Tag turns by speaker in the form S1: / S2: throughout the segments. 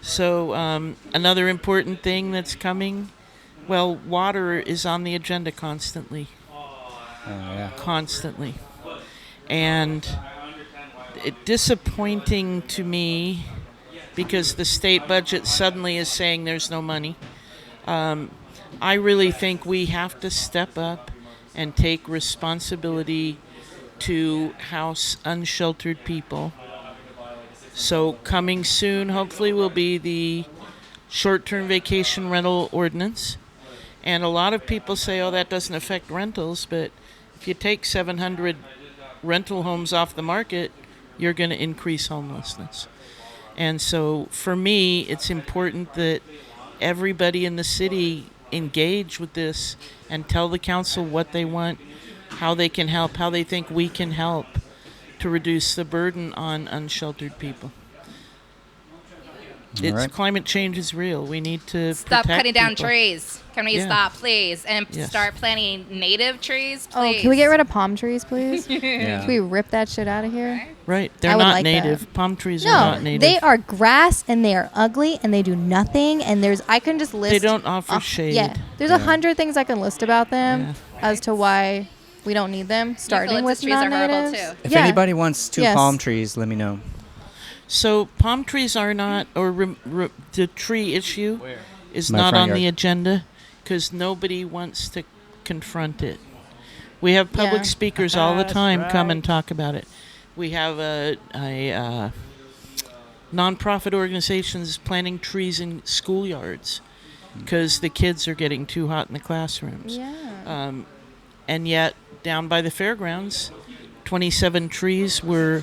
S1: So, um, another important thing that's coming well, water is on the agenda constantly,
S2: Oh, yeah.
S1: constantly. And it disappointing to me because the state budget suddenly is saying there's no money. Um, I really think we have to step up and take responsibility to house unsheltered people. So coming soon, hopefully, will be the short-term vacation rental ordinance. And a lot of people say, "Oh, that doesn't affect rentals," but if you take 700 rental homes off the market, you're going to increase homelessness. And so, for me, it's important that everybody in the city engage with this and tell the council what they want, how they can help, how they think we can help to reduce the burden on unsheltered people. It's
S2: right.
S1: climate change is real. We need to
S3: Stop
S1: protect
S3: cutting down
S1: people.
S3: trees. Can we
S1: Yeah.
S3: stop, please? And
S1: Yes.
S3: start planting native trees,
S4: Oh,
S3: please.
S4: can we get rid of palm trees, please? can
S2: yeah.
S4: we rip that shit out of here?
S1: Right, they're
S4: would
S1: not
S4: like that.
S1: native. Palm trees are
S4: No,
S1: not native.
S4: they are grass and they are ugly and they do nothing. And there's I can just list.
S1: They don't offer
S4: Uh,
S1: shade.
S4: Yeah, there's a hundred things I can list about them as to why we don't need them. Starting
S3: Eucalyptus
S4: with
S3: trees are horrible,
S4: non-natives.
S3: too.
S2: If
S4: yeah.
S2: anybody wants two
S4: Yes.
S2: palm trees, let me know.
S1: So palm trees are not, or rem re, the tree issue is
S2: My
S1: not
S2: front
S1: on the
S2: yard.
S1: agenda because nobody wants to confront it. We have public
S4: Yeah.
S1: speakers all the time come and talk about it. We have a, a uh, nonprofit organizations planting trees in schoolyards because the kids are getting too hot in the classrooms.
S4: Yeah.
S1: Um, and yet, down by the fairgrounds, 27 trees were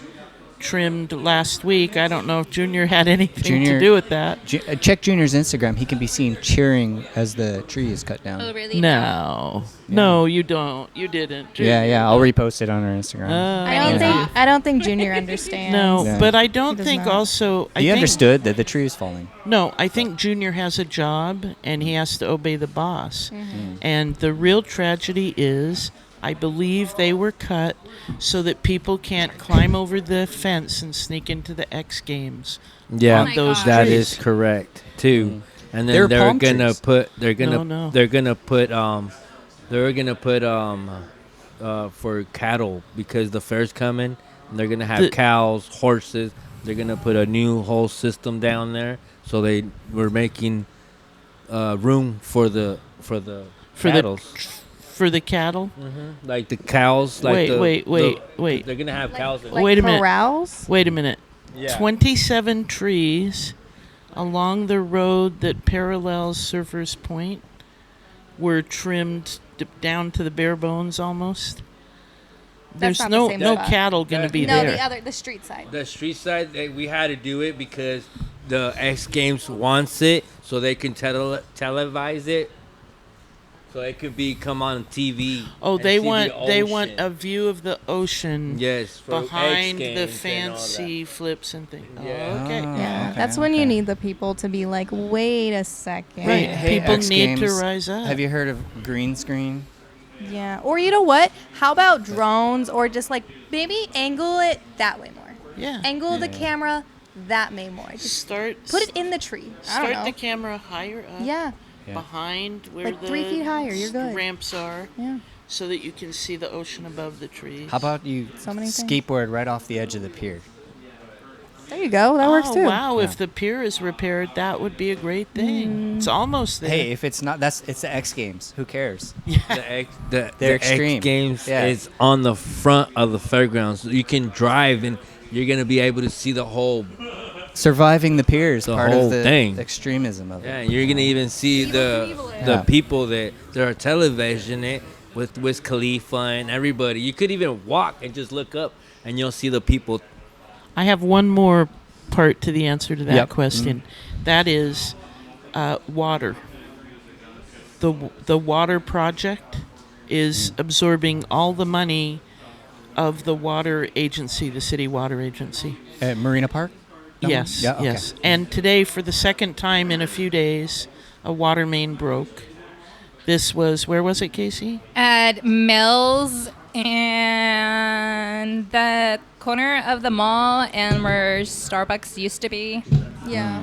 S1: trimmed last week. I don't know if Junior had anything to
S2: Junior-
S1: do with that.
S2: Ju- uh, check Junior's Instagram. He can be seen cheering as the tree is cut down.
S3: Oh, really?
S1: No. No, you don't. You didn't. Junior.
S2: yeah, yeah. I'll repost it on our Instagram.
S1: Oh.
S4: I don't
S3: Yeah.
S4: think I don't think Junior understands.
S1: no,
S2: Yeah.
S1: but I don't
S4: does
S1: think
S4: not.
S1: also. I
S2: he
S1: think,
S2: understood that the tree was falling.
S1: No, I think Junior has a job and he has to obey the boss.
S4: Mm-hmm.
S2: Mm.
S1: And the real tragedy is, I believe they were cut so that people can't climb over the fence and sneak into the X Games.
S4: Oh
S5: Yeah,
S3: my those
S5: that
S1: trees. Mm.
S5: is correct too. And then
S2: They're
S5: they're,
S2: palm
S5: gonna
S2: trees.
S5: put they're gonna
S1: No, no.
S5: they're gonna put um they're gonna put um uh for cattle because the fair's coming. And they're gonna have
S1: The-
S5: cows, horses. They're gonna put a new whole system down there, so they were making uh room for the for the
S1: For the
S5: cattle.
S1: For the cattle?
S5: like the cows. Like
S1: Wait,
S5: the,
S1: wait,
S5: the-
S1: wait, wait.
S5: They're gonna have cows. in
S4: Like
S1: Wait a minute.
S4: corrals?
S1: Wait a minute.
S5: Yeah.
S1: 27 trees along the road that parallels Surfers Point were trimmed d- down to the bare bones almost. There's
S4: not the
S1: no
S4: same
S1: no
S4: spot.
S1: cattle going to
S5: That-
S1: be
S4: No,
S1: there.
S4: the other the street side.
S5: The street side, they, we had to do it because the X Games wants it, so they can tele- televise it, so it could be come on TV.
S1: oh,
S5: and
S1: they
S5: see the
S1: want they want
S5: ocean.
S1: a view of the ocean
S5: yes for X
S1: behind the
S5: Games and all that.
S1: fancy flips and things.
S5: Yeah.
S1: Oh, okay.
S4: Yeah,
S2: okay,
S4: that's when
S2: okay.
S4: you need the people to be like, wait a second.
S1: Right.
S2: hey,
S1: People
S2: X
S1: need to
S2: Games,
S1: rise up.
S2: Have you heard of green screen?
S4: Yeah. Or you know what? How about drones or just like maybe angle it that way more.
S1: Yeah.
S4: Angle the camera that way more. Just
S1: Start
S4: put it in the tree. I don't
S1: start
S4: know.
S1: the camera higher up.
S4: yeah.
S2: Yeah.
S1: Behind where
S4: Like
S1: the
S4: three feet higher, you're good.
S1: ramps are.
S4: Yeah.
S1: so that you can see the ocean above the trees.
S2: How about you
S4: So many things.
S2: skateboard right off the edge of the pier?
S4: There you go. That works
S1: oh,
S4: too.
S1: Wow, if the pier is repaired, that would be a great
S4: Mm.
S1: thing. It's almost there.
S2: Hey, if it's not, that's it's the X Games. Who cares?
S5: The X, the,
S2: They're
S5: the
S2: extreme.
S5: X Games
S2: Yeah.
S5: is on the front of the fairgrounds. So you can drive and you're gonna be able to see the whole.
S2: Surviving the pier is
S5: The
S2: part
S5: whole
S2: of the
S5: thing.
S2: extremism of
S5: Yeah,
S2: it.
S5: and you're gonna even see the the
S2: Yeah.
S5: people that that are television it with Wiz Khalifa and everybody. You could even walk and just look up, and you'll see the people
S1: I have one more part to the answer to that
S2: Yep. Mm.
S1: question. That is uh, water. The w- the water project is
S2: Mm.
S1: absorbing all the money of the water agency, the city water agency.
S2: At Marina Park. That one?
S1: Yes,
S2: Yeah, okay.
S1: yes. And today, for the second time in a few days, a water main broke. This was where was it, Casey?
S3: At Mills and the corner of the mall and where Starbucks used to be.
S4: Yeah.